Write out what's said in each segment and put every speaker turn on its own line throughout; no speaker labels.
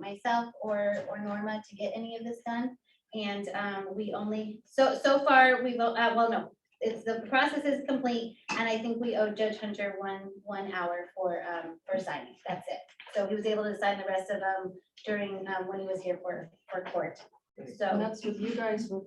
myself or, or Norma to get any of this done. And, um, we only, so, so far, we will, uh, well, no, it's, the process is complete, and I think we owe Judge Hunter one, one hour for, um, for signing, that's it. So he was able to sign the rest of them during, um, when he was here for, for court.
And
So,
that's with you guys with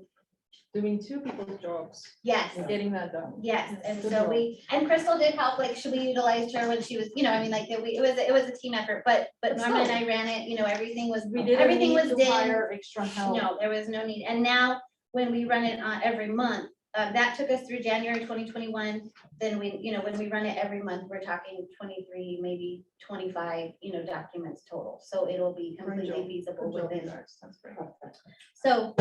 doing two people's jobs
yes,
and getting that done.
Yes, and
Good
so
job.
we, and Crystal did help, like, should we utilize her when she was, you know, I mean, like, that we, it was, it was a team effort, but, but
But
Norma and
still.
I ran it, you know, everything was,
We didn't
everything
need
was
to
done.
hire Extra help.
No, there was no need, and now, when we run it on every month, uh, that took us through January twenty twenty-one, then we, you know, when we run it every month, we're talking twenty-three, maybe twenty-five, you know, documents total, so it'll be
Great
completely
job.
feasible
Good job, you
within
guys. That's great.
so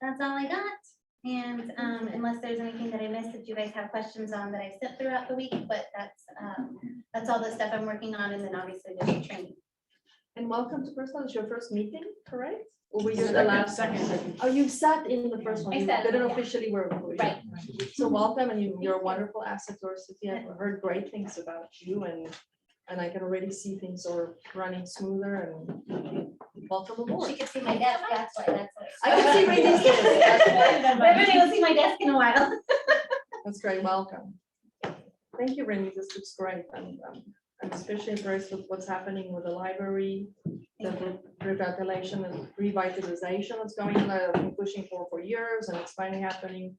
that's all I got. And um, unless there's anything that I missed that you guys have questions on that I sent throughout the week, but that's, um, that's all the stuff I'm working on and then obviously there's the training.
And welcome to first one, it's your first meeting, correct? Or were you
Second,
the last?
second.
Oh, you sat in the first one,
I
you
sat,
didn't
yeah.
officially work.
Right.
So welcome and you, you're a wonderful asset to our city. I've heard great things about you and, and I can already see things are running smoother and welcome
She
aboard.
could see my desk, that's why, that's why.
I can see Ray's desk.
Everybody will see my desk in a while.
That's great, welcome. Thank you, Renee, this looks great. I'm, I'm- I'm especially impressed with what's happening with the library, the
Thank
re- revitalization and revitalization that's going on, I've been pushing for for years and it's finally happening.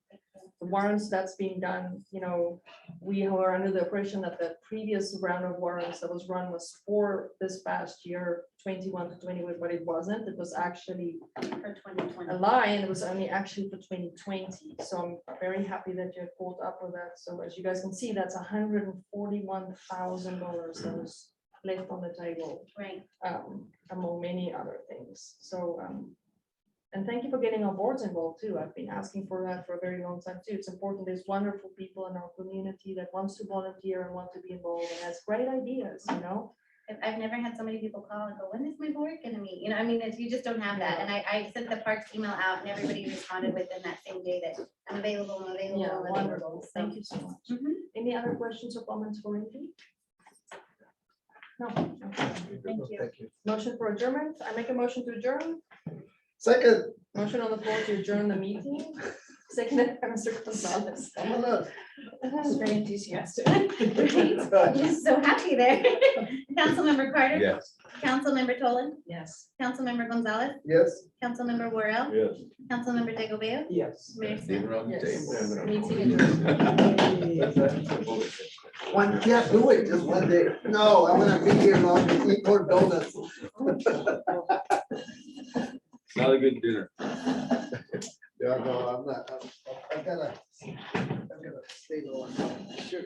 The warrants that's being done, you know, we were under the impression that the previous round of warrants that was run was for this past year, twenty-one to twenty-one, but it wasn't. It was actually
For twenty
a
twenty.
lie, and it was only actually for twenty twenty, so I'm very happy that you pulled up with that, so as you guys can see, that's hundred and forty-one thousand dollars that was left on the table,
Right.
um, among many other things, so, um, and thank you for getting our boards involved too, I've been asking for that for a very long time too, it's important, there's wonderful people in our community that wants to volunteer and want to be involved and has great ideas, you know?
I've, I've never had so many people call and go, when is my board gonna meet? You know, I mean, it's- you just don't have that. And I, I sent the parks email out and everybody responded within that same day that I'm available, I'm available,
Yeah,
I'm available.
wonderful,
So
thank you so much.
Mhm.
Any other questions or comments for Wendy? No, okay.
Thank you.
Motion for adjournment. I make a motion to adjourn.
Second,
Motion on the floor to adjourn the meeting. Seconded by Mr. Gonzalez.
I'm gonna.
Very enthusiastic.
Mm-hmm. I'm so happy there. Councilmember Carter.
Yes.
Councilmember Tolan.
Yes.
Councilmember Gonzalez.
Yes.
Councilmember Worel.
Yes.
Councilmember Digglebale.
Yes.
Mayor Smith.
Yes. Meeting
Yes. One can't do it just one day. No, I'm gonna be here long to eat more donuts.
Not a good dinner.
Yeah, no, I'm not. I'm- I've gotta. I've gotta stay the one. Sure.